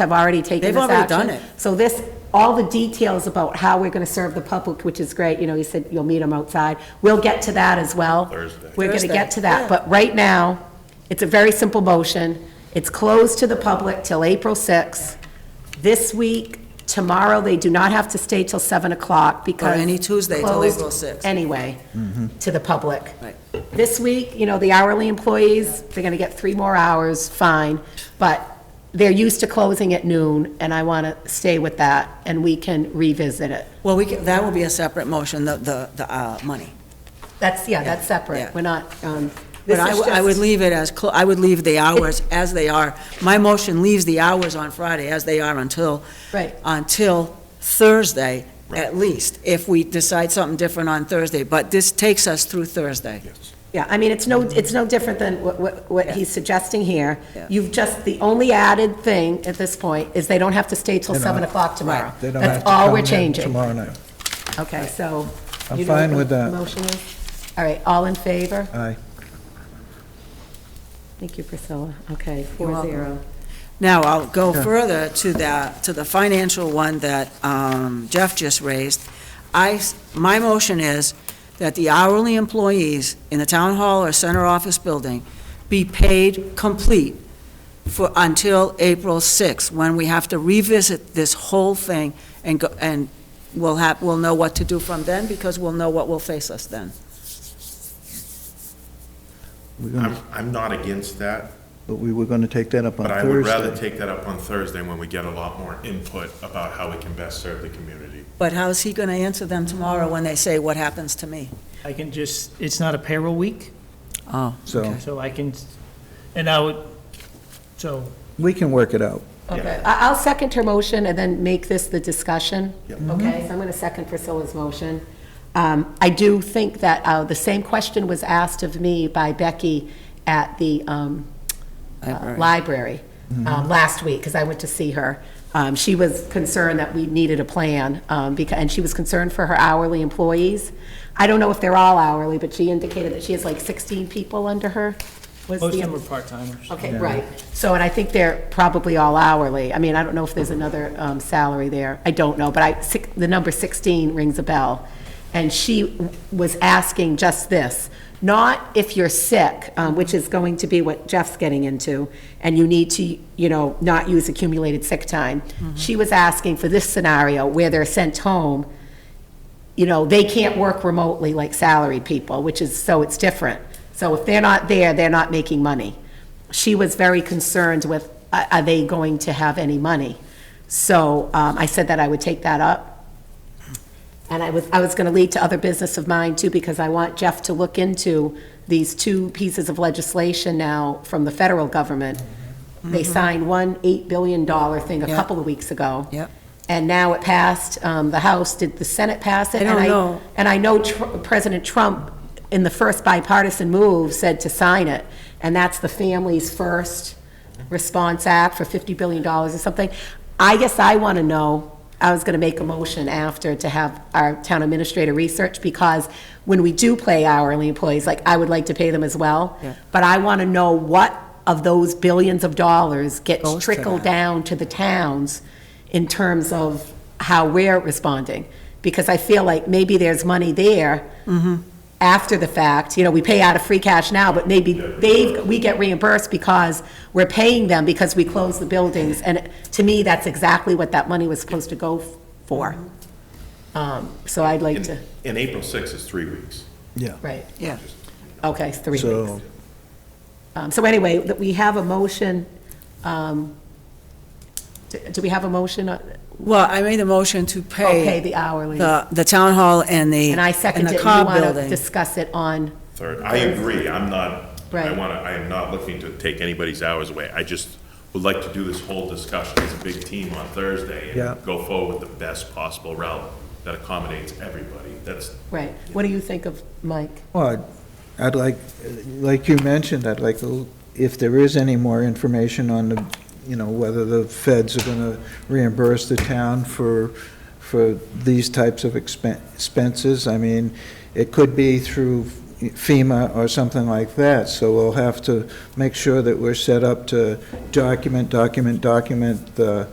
have already taken They've this already action. done it. So this, all the details about how we're going to serve the public, which is great, you know, you said you'll meet them outside. We'll get to that as well. Thursday. We're going to get to that, Thursday, yeah. but right now, it's a very simple motion. It's closed to the public till April 6th. This week, tomorrow, they do not have to stay till 7 o'clock because. any Tuesday till closed April 6th. Anyway, to the public. Right. This week, you know, the hourly employees, they're going to get three more hours, fine, but they're used to closing at noon, and I want to stay with that, and we can revisit it. Well, we, can- that will be a separate motion, the, the, the uh, money. That's, yeah, that's Yeah. separate. We're not, um, But this I, is w- I would just- leave it as, clo- I would leave the hours as they are. My motion leaves the hours on Friday as they are until, Right. until Thursday, at least, if we decide something different on Thursday. But this takes us through Thursday. Yeah, I mean, it's no, Mm-hmm. it's no different than what- what, what he's suggesting here. Yeah. You've just, the only added thing at this point is they don't have to stay till They don't 7 have- o'clock tomorrow. They don't have That's to all come we're in changing. Tomorrow night. Okay, so. I'm you know what fine the with that. Motion is? All right, all in favor? Aye. Thank you, Priscilla. Okay, You're four welcome. zero. Now, I'll go Sure. further to the, to the financial one that um, Jeff just raised. I, s- my motion is that the hourly employees in the town hall or center office building be paid complete for, until April 6th, when we have to revisit this whole thing and go, and we'll have, we'll know what to do from then, because we'll know what will face us then. We're I'm, gonna- I'm not against that, But we were going to take that up on Um, but I would rather Thursday. take that up on Thursday when we get a lot more input about how we can best serve the community. But how's he gonna answer them tomorrow when they say, what happens to me? I can just, it's not a payroll week, Oh, So so I can, and I would, so we can work it out. Okay, I- I'll second her motion and then make this the discussion. Yep. Okay, so I'm going to second Priscilla's motion. Um, I do think that uh, the same question was asked of me by Becky at the um, uh, library um, last week, because I went to see her. Um, She was concerned that we needed a plan, um, becau- and she was concerned for her hourly employees. I don't know if they're all hourly, but she indicated that she has like 16 people under her. was most of the- them are part-timers. Okay, right. So, and I think they're probably all hourly. I mean, I don't know if there's another um, salary there. I don't know, but I, six- the number 16 rings a bell. And she was asking just this, not if you're sick, um, which is going to be what Jeff's getting into, and you need to, you know, not use accumulated sick time. She was asking for this scenario where they're sent home you know, they can't work remotely like salaried people, which is, so it's different. So if they're not there, they're not making money. She was very concerned with, are are they going to have any money? So um, I said that I would take that up. And I was, I was going to lead to other business of mine too, because I want Jeff to look into these two pieces of legislation now from the federal government. They signed one $8 billion thing a Yeah. couple of weeks ago. Yep. And now it passed, um, the House, did the Senate pass it? I don't And know. And I know Tr- President Trump, in the first bipartisan move, said to sign it, and that's the Families First Response Act for $50 billion or something. I guess I want to know, I was going to make a motion after to have our town administrator research, because when we do pay hourly employees, like, I would like to pay them as well. Yeah. But I want to know what of those billions of dollars gets Goes to trickled that. down to the towns in terms of how we're responding. Because I feel like maybe there's money there Mm-hmm. after the fact, you know, we pay out of free cash now, but maybe they, we get reimbursed because we're paying them because we closed the buildings. And to me, that's exactly what that money was supposed to go for. Um, So I'd like to, And and April 6th is three weeks. Yeah. right, yeah. okay, it's three weeks. So Um, So anyway, that we have a motion, um, do do we have a motion? on- Well, I made a motion to Oh, pay pay the hourly. the, the town hall and the, And I and second it, the you car want to building. discuss it on, Third, I agree, I'm not, I Right. want to, I am not looking to take anybody's hours away. I just would like to do this whole discussion as a big team on Thursday Yeah. and go forward with the best possible route that accommodates everybody. That's, right. What do you think of, Mike? Well, I'd- I'd like, like you mentioned, I'd like, to- if there is any more information on the, you know, whether the feds are going to reimburse the town for, for these types of expen- expenses. I mean, it could be through FEMA or something like that, so we'll have to make sure that we're set up to document, document, document the